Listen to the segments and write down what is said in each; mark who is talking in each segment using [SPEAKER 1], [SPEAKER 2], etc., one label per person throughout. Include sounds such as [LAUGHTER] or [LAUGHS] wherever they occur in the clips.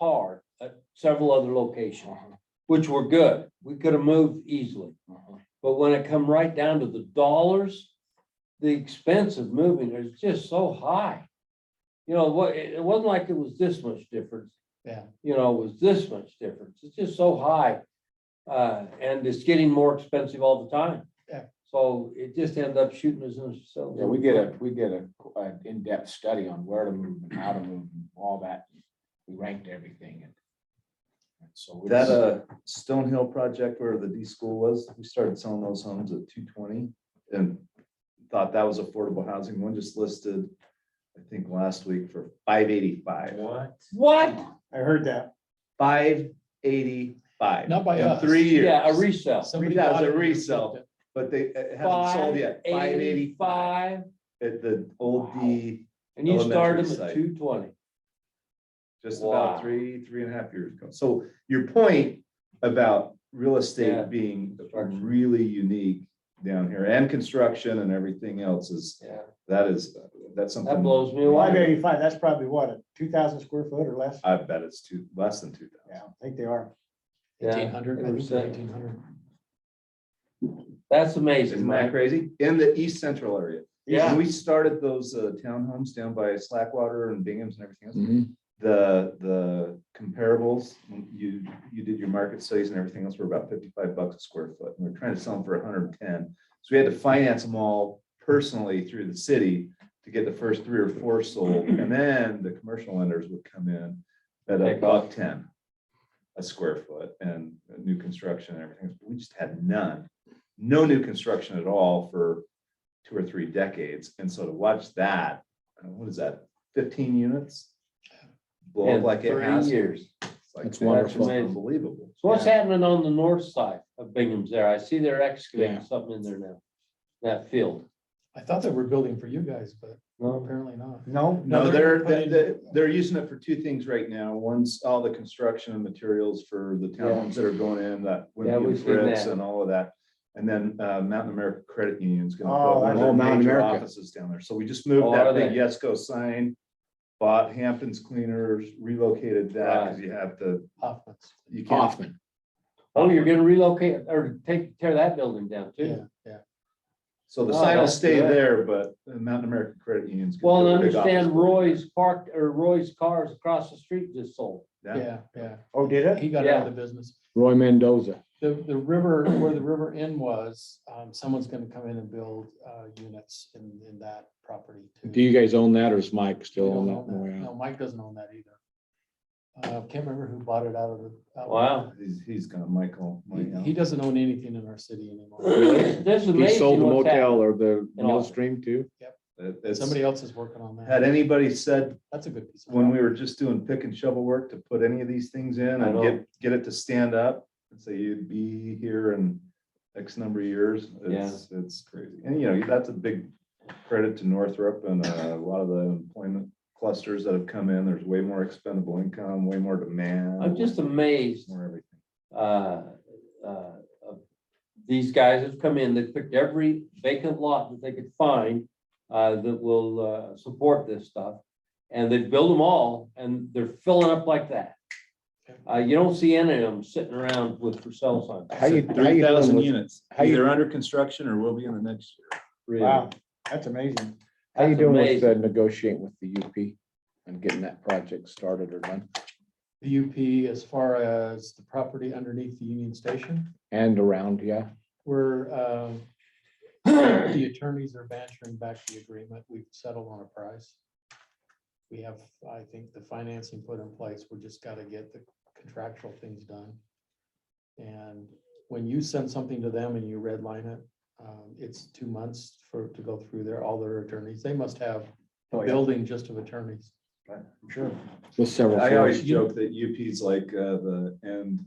[SPEAKER 1] hard at several other locations,
[SPEAKER 2] Uh-huh.
[SPEAKER 1] which were good. We could have moved easily. But when it come right down to the dollars, the expense of moving is just so high. You know, what, it it wasn't like it was this much difference.
[SPEAKER 2] Yeah.
[SPEAKER 1] You know, it was this much difference. It's just so high. Uh, and it's getting more expensive all the time.
[SPEAKER 2] Yeah.
[SPEAKER 1] So it just ended up shooting us in the foot.
[SPEAKER 3] Yeah, we did a, we did a, an in-depth study on where to move and how to move and all that. We ranked everything and. and So. we
[SPEAKER 4] That
[SPEAKER 3] just-
[SPEAKER 4] uh Stone Hill project where the D school was, we started selling those homes at two twenty and thought that was affordable housing. One just listed, I think last week for five eighty-five.
[SPEAKER 5] What?
[SPEAKER 1] What?
[SPEAKER 2] I heard that.
[SPEAKER 4] Five eighty-five.
[SPEAKER 2] Not by us.
[SPEAKER 4] In three
[SPEAKER 1] Yeah, a
[SPEAKER 4] years,
[SPEAKER 1] resale.
[SPEAKER 2] Somebody
[SPEAKER 4] That was
[SPEAKER 2] bought
[SPEAKER 4] a
[SPEAKER 2] it and
[SPEAKER 4] resell.
[SPEAKER 2] flipped
[SPEAKER 4] but they uh, haven't sold yet. Five eighty-five at the old D,
[SPEAKER 1] And you started
[SPEAKER 4] Elementary
[SPEAKER 1] them at
[SPEAKER 4] site.
[SPEAKER 1] two twenty.
[SPEAKER 4] just
[SPEAKER 1] Wow.
[SPEAKER 4] about three, three and a half years ago. So your point about real
[SPEAKER 1] Yeah.
[SPEAKER 4] estate being
[SPEAKER 1] Construction.
[SPEAKER 4] really unique down here and construction and everything else is,
[SPEAKER 1] Yeah.
[SPEAKER 4] that is, that's something.
[SPEAKER 1] blows me
[SPEAKER 2] it.
[SPEAKER 1] away.
[SPEAKER 2] Five eighty-five, that's probably what, a two thousand square foot or less?
[SPEAKER 4] I bet it's two, less than two
[SPEAKER 2] Yeah,
[SPEAKER 4] thousand.
[SPEAKER 2] I think they are.
[SPEAKER 1] Yeah,
[SPEAKER 2] hundred,
[SPEAKER 1] I think they're
[SPEAKER 2] eighteen hundred.
[SPEAKER 1] That's amazing,
[SPEAKER 4] Isn't that
[SPEAKER 1] Mike.
[SPEAKER 4] crazy? In the east central area.
[SPEAKER 1] Yeah.
[SPEAKER 4] When we started those uh, townhomes down by Slackwater and Bingham's and everything else,
[SPEAKER 5] Mm-hmm.
[SPEAKER 3] Mhm.
[SPEAKER 4] the, the comparables, you, you did your market studies and everything else were about fifty-five bucks a square foot. And we're trying to sell them for hundred and ten. So we had to finance them all personally through the city to get the first three or four sold. And then the commercial lenders would come in at a
[SPEAKER 1] Take
[SPEAKER 4] buck ten a square foot and new construction and everything. We just had none, no new construction at all for two or three decades. And so to watch that, uh, what is that, fifteen units? Blow
[SPEAKER 1] In
[SPEAKER 4] up like it
[SPEAKER 1] three
[SPEAKER 4] has.
[SPEAKER 1] years.
[SPEAKER 4] It's like,
[SPEAKER 5] That's
[SPEAKER 4] That's
[SPEAKER 5] wonderful.
[SPEAKER 4] just unbelievable.
[SPEAKER 1] So what's happening on the north side of Bingham's there? I see they're excavating
[SPEAKER 5] Yeah.
[SPEAKER 1] something in there now. That field.
[SPEAKER 6] I thought they were building for you guys, but uh.
[SPEAKER 1] No,
[SPEAKER 6] apparently not.
[SPEAKER 2] No,
[SPEAKER 4] No, they're, they-
[SPEAKER 6] putting-
[SPEAKER 4] they- they're using it for two things right now. One's all the construction and materials for the towns that are going in, that.
[SPEAKER 1] Yeah, we've seen
[SPEAKER 4] bricks
[SPEAKER 1] that.
[SPEAKER 4] And all of that. And then uh, Mountain America Credit Union's gonna
[SPEAKER 2] Oh,
[SPEAKER 4] put
[SPEAKER 2] that's-
[SPEAKER 4] one of
[SPEAKER 2] Oh,
[SPEAKER 4] their
[SPEAKER 2] Mountain
[SPEAKER 4] major
[SPEAKER 2] America.
[SPEAKER 4] offices down there. So we just
[SPEAKER 1] Oh,
[SPEAKER 4] moved
[SPEAKER 1] are
[SPEAKER 4] that big
[SPEAKER 1] they?
[SPEAKER 4] Yesco sign. Bought Hampton's Cleaners, relocated that because you have to,
[SPEAKER 6] Hoffman's.
[SPEAKER 4] you can't,
[SPEAKER 5] Hoffman.
[SPEAKER 1] oh, you're gonna relocate or take, tear that building down
[SPEAKER 6] Yeah,
[SPEAKER 1] too.
[SPEAKER 6] yeah.
[SPEAKER 4] so the
[SPEAKER 1] Oh,
[SPEAKER 4] sign will
[SPEAKER 1] that's
[SPEAKER 4] stay
[SPEAKER 1] good.
[SPEAKER 4] there, but the Mountain America Credit Union's. gonna
[SPEAKER 1] Well,
[SPEAKER 4] put
[SPEAKER 1] and
[SPEAKER 4] a big office
[SPEAKER 1] understand
[SPEAKER 4] building.
[SPEAKER 1] Roy's parked or Roy's cars across the street just sold.
[SPEAKER 4] Yeah,
[SPEAKER 6] Yeah, yeah.
[SPEAKER 2] oh, did it?
[SPEAKER 6] He got out of the business.
[SPEAKER 5] Roy Mendoza.
[SPEAKER 6] The, the river, where the river end was, um, someone's gonna come in and build, uh, units in, in that property too.
[SPEAKER 5] Do you guys own that or is Mike
[SPEAKER 6] We
[SPEAKER 5] still
[SPEAKER 6] don't
[SPEAKER 5] on
[SPEAKER 6] own that.
[SPEAKER 5] that?
[SPEAKER 6] No, Mike doesn't own that either. Uh, can't remember who bought it out of the. out
[SPEAKER 4] [CLEARS THROAT]
[SPEAKER 6] of-
[SPEAKER 1] Wow.
[SPEAKER 4] he's, he's gonna Michael.
[SPEAKER 6] He-
[SPEAKER 4] Michael.
[SPEAKER 6] He doesn't own anything in our city anymore.
[SPEAKER 1] This is
[SPEAKER 5] He
[SPEAKER 1] amazing
[SPEAKER 5] sold the
[SPEAKER 1] what's happening.
[SPEAKER 5] motel or the
[SPEAKER 1] In Austin.
[SPEAKER 5] mill stream too?
[SPEAKER 4] It- it's-
[SPEAKER 6] Somebody else is working on
[SPEAKER 4] Had
[SPEAKER 6] that.
[SPEAKER 4] anybody said
[SPEAKER 6] That's a good piece. of
[SPEAKER 4] when we
[SPEAKER 6] property.
[SPEAKER 4] were just doing pick and shovel work to put any of these things in
[SPEAKER 1] I
[SPEAKER 4] and
[SPEAKER 1] know.
[SPEAKER 4] get, get it to stand up. And say you'd be here in X number of years. It's, it's crazy. And you know, that's a big credit to Northrop and uh, a lot of the employment clusters that have come in. There's way more expendable income, way more demand.
[SPEAKER 1] I'm just amazed
[SPEAKER 4] More everything.
[SPEAKER 1] uh, uh, these guys have come in, they've picked every vacant lot that they could find uh, that will uh, support this stuff. And they build them all and they're filling up like that. Uh, You don't see any of them sitting around with for sale signs.
[SPEAKER 5] How you, how you doing
[SPEAKER 4] 3,000
[SPEAKER 5] with,
[SPEAKER 4] units,
[SPEAKER 5] how you-
[SPEAKER 4] under construction or will be in the next year.
[SPEAKER 1] really.
[SPEAKER 2] Wow, that's amazing.
[SPEAKER 5] how you
[SPEAKER 1] That's
[SPEAKER 5] doing with uh,
[SPEAKER 1] amazing.
[SPEAKER 5] negotiating with the UP and getting that project started or done
[SPEAKER 6] The UP as far as the property underneath the Union Station.
[SPEAKER 5] and around, yeah?
[SPEAKER 6] We're, um, the attorneys are bantering back the agreement. We've settled on a price. We have, I think, the financing put in place. We just gotta get the contractual things done. And when you send something to them and you redline it, um, it's two months for, to go through their, all their attorneys. They must have a
[SPEAKER 5] Oh,
[SPEAKER 6] building just of attorneys.
[SPEAKER 2] Sure.
[SPEAKER 5] With several.
[SPEAKER 4] I always
[SPEAKER 5] floors.
[SPEAKER 4] joke that UP's like uh, the end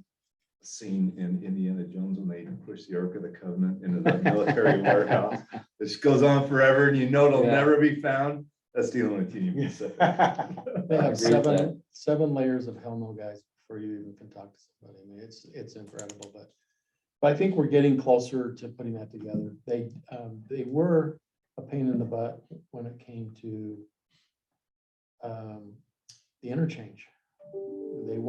[SPEAKER 4] scene in Indiana Jones when they push the Ark of the Covenant
[SPEAKER 5] [LAUGHS]
[SPEAKER 4] into the military warehouse. This goes on forever and you know it'll
[SPEAKER 1] Yeah.
[SPEAKER 4] never be found. That's the only thing
[SPEAKER 5] [LAUGHS]
[SPEAKER 4] you can say.
[SPEAKER 1] [LAUGHS]
[SPEAKER 6] They have
[SPEAKER 1] agree with
[SPEAKER 6] seven, seven layers of hell no guys before you even can talk to somebody. I mean, it's, it's incredible, but. But I think we're getting closer to putting that together. They, um, they were a pain in the butt when it came to. Um, the interchange. They